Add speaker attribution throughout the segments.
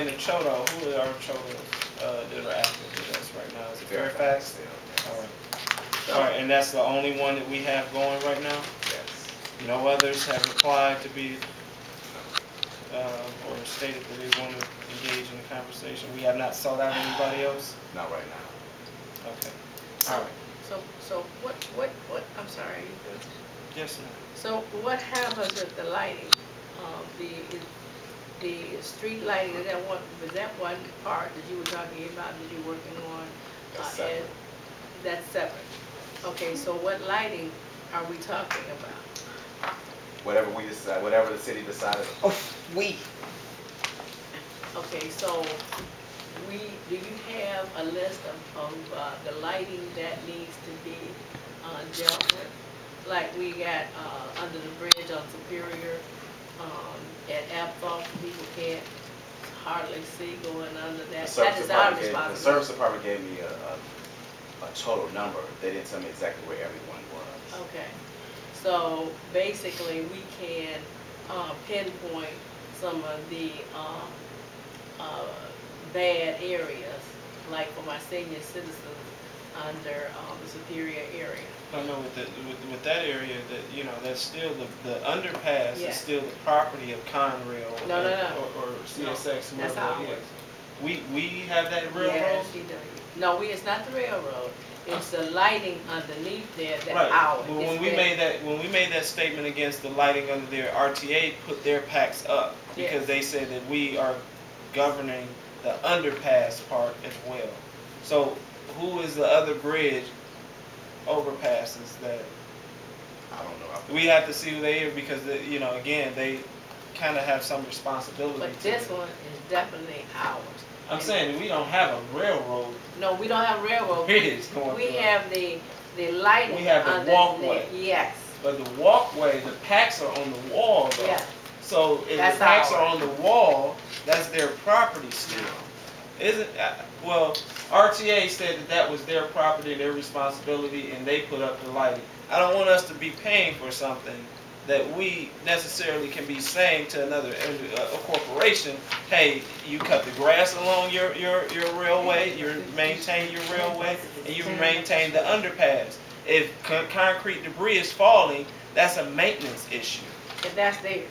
Speaker 1: And in Choto, who are our Chotos uh, that are active with us right now? Is it Fairfax? All right. All right, and that's the only one that we have going right now?
Speaker 2: Yes.
Speaker 1: No others have applied to be, uh, or stated that they want to engage in the conversation? We have not sought out anybody else?
Speaker 2: Not right now.
Speaker 1: Okay. All
Speaker 3: So,
Speaker 1: right.
Speaker 3: so, so what, what, what, I'm sorry, you good?
Speaker 1: Yes, ma'am.
Speaker 3: so what happens with the lighting? Um, the, the street lighting, is that one, was that one part that you were talking about, that you're working on? uh,
Speaker 2: That's separate.
Speaker 3: and- That's separate. Okay, so what lighting are we talking about?
Speaker 2: Whatever we decide, whatever the city decided.
Speaker 4: Oh, we,
Speaker 3: Okay, so we, do you have a list of, of, uh, the lighting that needs to be, uh, dealt with? Like we got, uh, under the bridge on Superior, um, at Apple, people can't hardly see going under
Speaker 2: The
Speaker 3: that. That
Speaker 2: service
Speaker 3: is our
Speaker 2: department gave, the service
Speaker 3: responsibility.
Speaker 2: department gave me a, a, a total number. They didn't tell me exactly where everyone was.
Speaker 3: Okay, so basically, we can, uh, pinpoint some of the, um, uh, bad areas, like for my senior citizens under, um, the Superior area.
Speaker 1: No, no, with the, with, with that area, that, you know, that's still the, the underpass
Speaker 3: Yeah.
Speaker 1: is still the property of Conrail.
Speaker 3: No, no, no.
Speaker 1: or- Or or CSX,
Speaker 3: No, that's
Speaker 1: whoever it
Speaker 3: ours.
Speaker 1: is. We, we have that railroad?
Speaker 3: Yes, you do. No, we, it's not the railroad, it's the lighting underneath there
Speaker 1: Right.
Speaker 3: that hour.
Speaker 1: Well, when we made that, when we made that statement against the lighting under there, RTA put their packs up because
Speaker 3: Yes.
Speaker 1: they said that we are governing the underpass part as well. So who is the other bridge overpasses that?
Speaker 2: I don't know. I-
Speaker 1: We have to see who they are because, the- you know, again, they kind of have some responsibility.
Speaker 3: But
Speaker 1: to
Speaker 3: this
Speaker 1: it.
Speaker 3: one is definitely ours.
Speaker 1: I'm saying that we don't have a railroad
Speaker 3: No, we don't have railroad.
Speaker 1: bridge going
Speaker 3: We
Speaker 1: through.
Speaker 3: have the, the lighting.
Speaker 1: We have the
Speaker 3: under
Speaker 1: walkway.
Speaker 3: Yes,
Speaker 1: But the walkway, the packs are on the wall though.
Speaker 3: yes.
Speaker 1: So if
Speaker 3: That's
Speaker 1: the packs are
Speaker 3: ours.
Speaker 1: on the wall, that's their property still. Isn't, uh, well, RTA said that that was their property, their responsibility, and they put up the lighting. I don't want us to be paying for something that we necessarily can be saying to another, uh, a corporation, hey, you cut the grass along your, your, your railway, you maintain your railway, and you maintain the underpass. If con- concrete debris is falling, that's a maintenance issue.
Speaker 3: And that's theirs.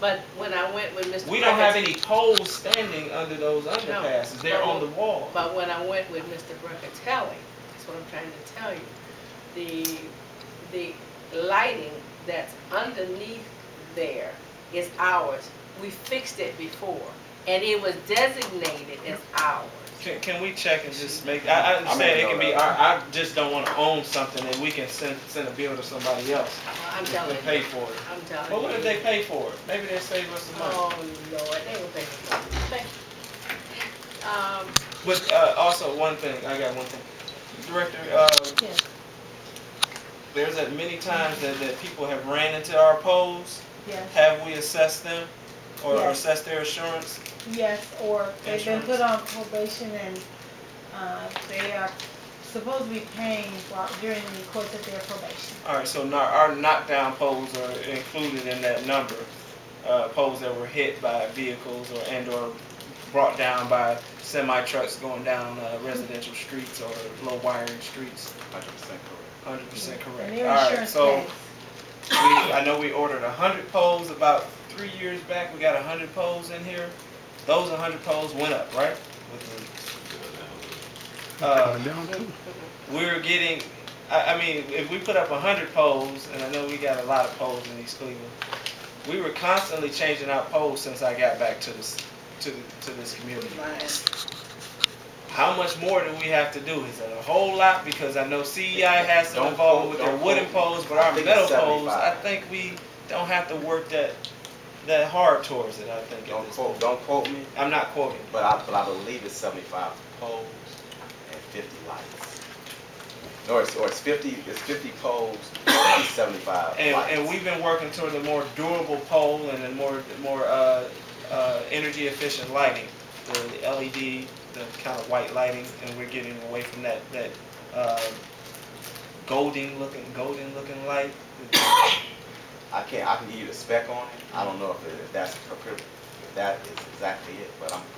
Speaker 3: But when I went with Mr.
Speaker 1: We don't have
Speaker 3: Brackett-
Speaker 1: any poles standing under those underpasses, they're on the wall.
Speaker 3: But when I went with Mr. Brackatelli, that's what I'm trying to tell you, the, the lighting that's underneath there is ours. We fixed it before, and it was designated as ours.
Speaker 1: Can, can we check and just make, I, I understand
Speaker 2: making
Speaker 1: it can be,
Speaker 2: note of
Speaker 1: I, I just don't wanna own something and we can send, send a bill to somebody else.
Speaker 3: I'm
Speaker 1: and
Speaker 3: telling
Speaker 1: Pay
Speaker 3: you,
Speaker 1: for it.
Speaker 3: I'm telling you.
Speaker 1: But what if they pay for it? Maybe they save us some money.
Speaker 3: Oh, Lord, they will pay for it. Thank you. Um,
Speaker 1: But, uh, also, one thing, I got one thing. Director, uh,
Speaker 3: Yes.
Speaker 1: there's that many times that, that people have ran into our poles.
Speaker 5: Yes,
Speaker 1: Have we assessed them or
Speaker 5: Yes.
Speaker 1: assessed their insurance?
Speaker 5: yes, or they've been
Speaker 1: Insurance.
Speaker 5: put on probation and, uh, they are supposed to be paying while, during the course of their probation.
Speaker 1: All right, so no- our knockdown poles are included in that number, uh, poles that were hit by vehicles or and/or brought down by semi trucks going down uh, residential streets or low wiring streets.
Speaker 2: Hundred percent correct.
Speaker 1: Hundred percent correct.
Speaker 5: And
Speaker 1: All
Speaker 5: their
Speaker 1: right,
Speaker 5: insurance
Speaker 1: so
Speaker 5: pays.
Speaker 1: we, I know we ordered hundred poles about three years back. We got hundred poles in here. Those hundred poles went up, right? With the, uh, we're getting, I, I mean, if we put up a hundred poles, and I know we got a lot of poles in East Cleveland, we were constantly changing our poles since I got back to this, to, to this community. How much more do we have to do? Is it a whole lot? Because I know CEI has some
Speaker 2: Don't
Speaker 1: involvement with
Speaker 2: quote-
Speaker 1: their
Speaker 2: don't
Speaker 1: wooden
Speaker 2: quote.
Speaker 1: poles, but
Speaker 2: I
Speaker 1: our
Speaker 2: think
Speaker 1: metal
Speaker 2: it's
Speaker 1: poles, I
Speaker 2: 75.
Speaker 1: think we don't have to work that, that hard towards it, I think. at
Speaker 2: Don't
Speaker 1: this
Speaker 2: quote,
Speaker 1: point.
Speaker 2: don't quote me,
Speaker 1: I'm not quoting.
Speaker 2: but I, but I believe it's seventy-five poles and fifty lights. Or it's, or it's fifty, it's fifty poles and seventy-five
Speaker 1: And,
Speaker 2: lights.
Speaker 1: and we've been working toward a more durable pole and a more, more, uh, uh, energy efficient lighting. The LED, the kind of white lighting, and we're getting away from that, that, uh, golden looking, golden looking light.
Speaker 2: I can't, I can give you the spec on it, I don't know if, it- if that's, appro- if that is exactly it, but I'm